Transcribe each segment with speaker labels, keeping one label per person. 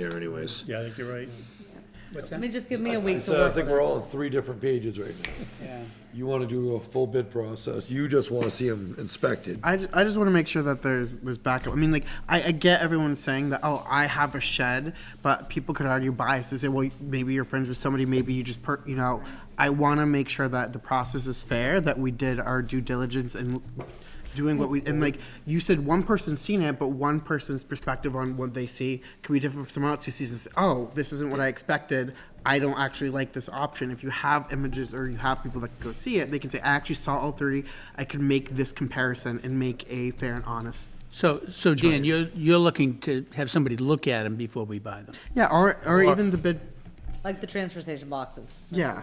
Speaker 1: here anyways.
Speaker 2: Yeah, I think you're right.
Speaker 3: What's
Speaker 4: I
Speaker 3: that?
Speaker 4: mean, just give me a week to
Speaker 1: So I
Speaker 4: work with
Speaker 1: think we're
Speaker 4: it.
Speaker 1: all on three different pages right now.
Speaker 3: Yeah.
Speaker 1: You wanna do a full bid process, you just wanna see them inspected.
Speaker 5: I, ju- I just want to make sure that there's there's backup. I mean, like I, I get everyone saying that oh I have a shed, but people could argue bias. They say well maybe you're friends with somebody, maybe you just per you know. I want to make sure that the process is fair, that we did our due diligence and doing what we and like you said one person's seen it, but one person's perspective on what they see can be different from someone else who sees this. Oh, this isn't what I expected. I don't actually like this option. If you have images or you have people that can go see it, they can say, I actually saw all three. I can make this comparison and make a fair and honest.
Speaker 3: So, so Dan,
Speaker 5: Choice.
Speaker 3: you're, you're looking to have somebody look at them before we buy them?
Speaker 5: Yeah, or, or even the bid.
Speaker 4: Like the transfer station boxes.
Speaker 5: Yeah.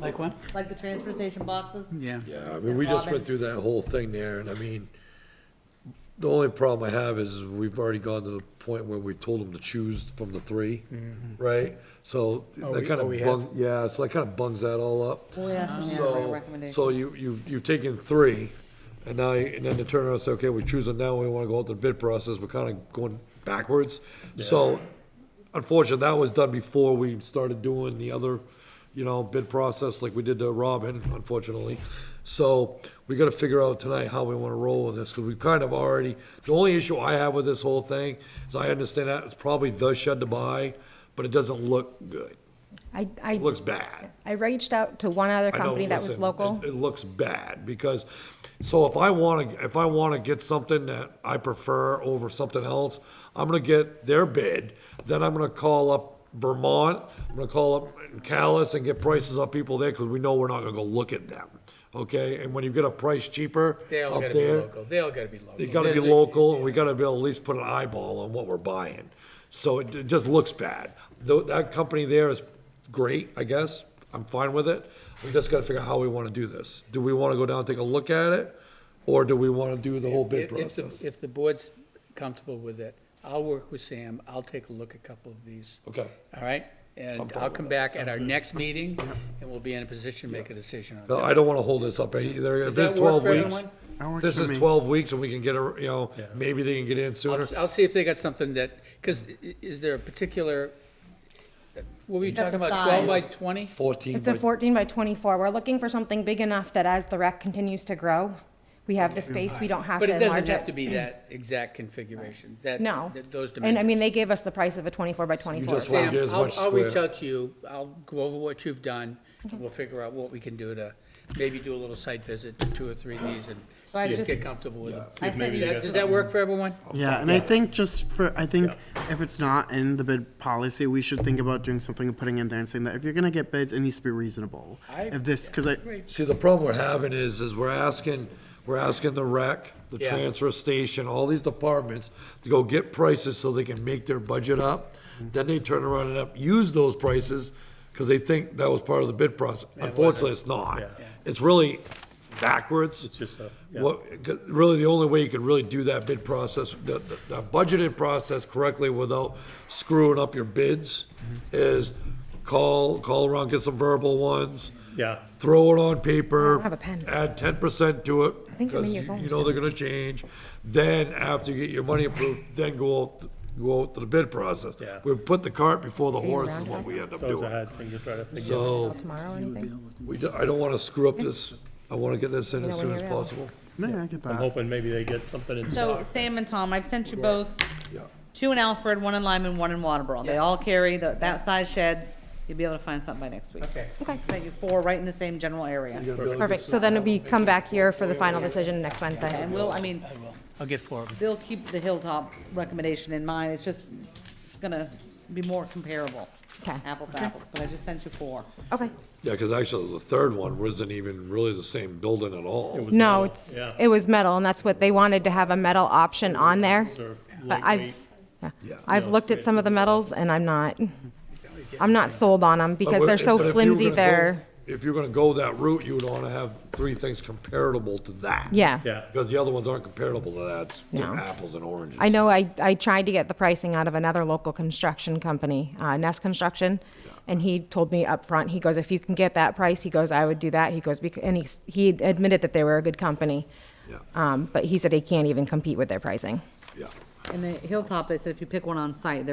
Speaker 3: Like what?
Speaker 4: Like the transfer station boxes?
Speaker 3: Yeah.
Speaker 1: Yeah, I mean, we just went through that whole thing there, and I mean, the only problem I have is we've already gone to the point where we told them to choose from the three,
Speaker 4: Mm-hmm.
Speaker 1: right? So
Speaker 4: Oh,
Speaker 1: that kind of bung, yeah, so that kind of bungs that all up.
Speaker 4: Well, we asked them yeah, for a
Speaker 1: So,
Speaker 4: recommendation.
Speaker 1: so you, you've, you've taken three, and now, you- and then the turnaround, say, okay, we choose them now, we wanna go out the bid process, we're kinda going backwards. So, unfortunately, that was done before we started doing the other, you know, bid process like we did to Robin, unfortunately. So, we gotta figure out tonight how we wanna roll with this, cause we've kind of already, the only issue I have with this whole thing is I understand that it's probably the shed to buy, but it doesn't look good.
Speaker 6: I, I.
Speaker 1: It looks bad.
Speaker 6: I reached out to one other
Speaker 1: I know,
Speaker 6: company that was
Speaker 1: listen,
Speaker 6: local.
Speaker 1: It, it looks bad because, so if I want to, if I want to get something that I prefer over something else, I'm gonna get their bid. Then I'm gonna call up Vermont. I'm gonna call up Callis and get prices off people there because we know we're not gonna go look at them. Okay, and when you get a price cheaper
Speaker 7: They all
Speaker 1: up
Speaker 7: gotta be
Speaker 1: there,
Speaker 7: local. They all gotta be local.
Speaker 1: they gotta be
Speaker 7: They're-
Speaker 1: local, and we gotta be able to at least put an eyeball on what we're buying. So it, it just looks bad. Though, that company there is great, I guess, I'm fine with it. We just gotta figure out how we wanna do this. Do we wanna go down and take a look at it, or do we wanna do the whole bid
Speaker 7: If- if the-
Speaker 1: process?
Speaker 7: If the board's comfortable with it, I'll work with Sam. I'll take a look at a couple of these.
Speaker 1: Okay,
Speaker 7: All right? And
Speaker 1: fine
Speaker 7: I'll
Speaker 1: with
Speaker 7: come
Speaker 1: that.
Speaker 7: back at our next meeting, and we'll be in a position to make a decision on
Speaker 1: no,
Speaker 7: that.
Speaker 1: I don't wanna hold this up any- either. If
Speaker 7: that
Speaker 1: it's
Speaker 7: work
Speaker 1: twelve
Speaker 7: for
Speaker 1: weeks,
Speaker 7: everyone?
Speaker 5: That works
Speaker 1: this
Speaker 5: for
Speaker 1: is
Speaker 5: me.
Speaker 1: twelve weeks and we can get a, you know, maybe they can get in sooner.
Speaker 7: I'll, I'll see if they got something that, because is there a particular, what were you
Speaker 4: At the
Speaker 7: talking about,
Speaker 4: size.
Speaker 7: twelve by twenty?
Speaker 1: Fourteen,
Speaker 6: It's a
Speaker 1: but
Speaker 6: fourteen by twenty-four. We're looking for something big enough that as the rec continues to grow, we have the space, we don't have
Speaker 7: But
Speaker 6: to
Speaker 7: it doesn't
Speaker 6: enlarge
Speaker 7: have to
Speaker 6: it.
Speaker 7: be that exact configuration, that,
Speaker 6: No.
Speaker 7: that- those dimensions.
Speaker 6: And I mean, they gave us the price of a twenty-four by twenty-four.
Speaker 1: just want-
Speaker 6: so-
Speaker 1: get as
Speaker 7: Sam, I'll,
Speaker 1: much
Speaker 7: I'll reach
Speaker 1: square.
Speaker 7: out to you, I'll go over what you've done, and we'll figure out what we can do to, maybe do a little site visit to two or three of these and
Speaker 4: I
Speaker 7: just
Speaker 4: just-
Speaker 7: get comfortable with them.
Speaker 4: I said you
Speaker 7: That- Does that work for everyone?
Speaker 5: Yeah, and I think just for, I think if it's not in the bid policy, we should think about doing something and putting in there and saying that if you're going to get bids, it needs to be reasonable.
Speaker 7: I-
Speaker 5: if this, because I,
Speaker 1: See, the problem we're having is, is we're asking, we're asking the rec, the
Speaker 7: Yeah.
Speaker 1: transfer station, all these departments to go get prices so they can make their budget up. Then they turn around and up, use those prices, because they think that was part of the bid process. Unfortunately, it's not. It's really backwards. It's
Speaker 2: just a- yeah.
Speaker 1: What, 'cause really, the only way you could really do that bid process, the, the- the budgeted process correctly without screwing up your bids
Speaker 2: Mm-hmm.
Speaker 1: is call, call around, get some verbal ones
Speaker 2: Yeah.
Speaker 1: throw it on paper.
Speaker 6: I have a pen.
Speaker 1: Add ten percent to it.
Speaker 6: think I'm in
Speaker 1: because
Speaker 6: your
Speaker 1: you-
Speaker 6: phone,
Speaker 1: You know they're gonna change. Then after you get your money approved, then go out, go out to the bid process.
Speaker 2: Yeah.
Speaker 1: We put the cart before the horse is
Speaker 6: around
Speaker 1: what we end up
Speaker 2: That was a
Speaker 1: doing.
Speaker 2: hard thing to try to figure. out.
Speaker 1: So,
Speaker 6: Tomorrow, or anything?
Speaker 1: we, do- I don't wanna screw up this. I wanna get this in
Speaker 6: You
Speaker 1: as
Speaker 6: know
Speaker 1: soon
Speaker 6: when
Speaker 1: as
Speaker 6: you're out.
Speaker 1: possible.
Speaker 5: no, I get that.
Speaker 2: I'm hoping maybe they get something in
Speaker 4: So
Speaker 2: stock.
Speaker 4: Sam and Tom, I've sent you both,
Speaker 1: Yeah.
Speaker 4: two in Alfred, one in Lyman, one in Waterboro. They all carry the, that size sheds. You'll be able to find something by next week.
Speaker 7: Okay.
Speaker 6: Okay.
Speaker 4: Sent you four right in the same general area.
Speaker 6: Perfect. So then we come back here for the final decision next Wednesday.
Speaker 4: And we'll, I mean,
Speaker 7: I'll get four of them.
Speaker 4: they'll keep the Hilltop recommendation in mind. It's just, it's gonna be more comparable.
Speaker 6: Okay.
Speaker 4: Apples to apples, but I just sent you four.
Speaker 6: Okay.
Speaker 1: Yeah, cause actually the third one wasn't even really the same building at all.
Speaker 6: No, it's,
Speaker 2: yeah.
Speaker 6: it was metal and that's what, they wanted to have a metal option on there.
Speaker 2: They're
Speaker 6: But
Speaker 2: lightweight.
Speaker 6: I've, yeah. I've looked at some of the metals and I'm not, I'm not sold on them
Speaker 1: But
Speaker 6: because
Speaker 1: what-
Speaker 6: they're so
Speaker 1: but if you were
Speaker 6: flimsy
Speaker 1: gonna go-
Speaker 6: They're
Speaker 1: If you're gonna go that route, you would wanna have three things comparable to that.
Speaker 6: yeah.
Speaker 2: Yeah.
Speaker 1: Because the other ones aren't comparable to that. It's they're
Speaker 6: No.
Speaker 1: apples and oranges.
Speaker 6: I know I, I tried to get the pricing out of another local construction company, uh, Nest Construction, and he told me up front. he goes, if you can get that price, he goes, I would do that. He goes, "Bec- and he, s- he admitted that they were a good company.
Speaker 1: Yeah.
Speaker 6: Um, but he said he can't even compete with their pricing.
Speaker 1: Yeah.
Speaker 4: In the Hilltop, they said if you pick one on site, they're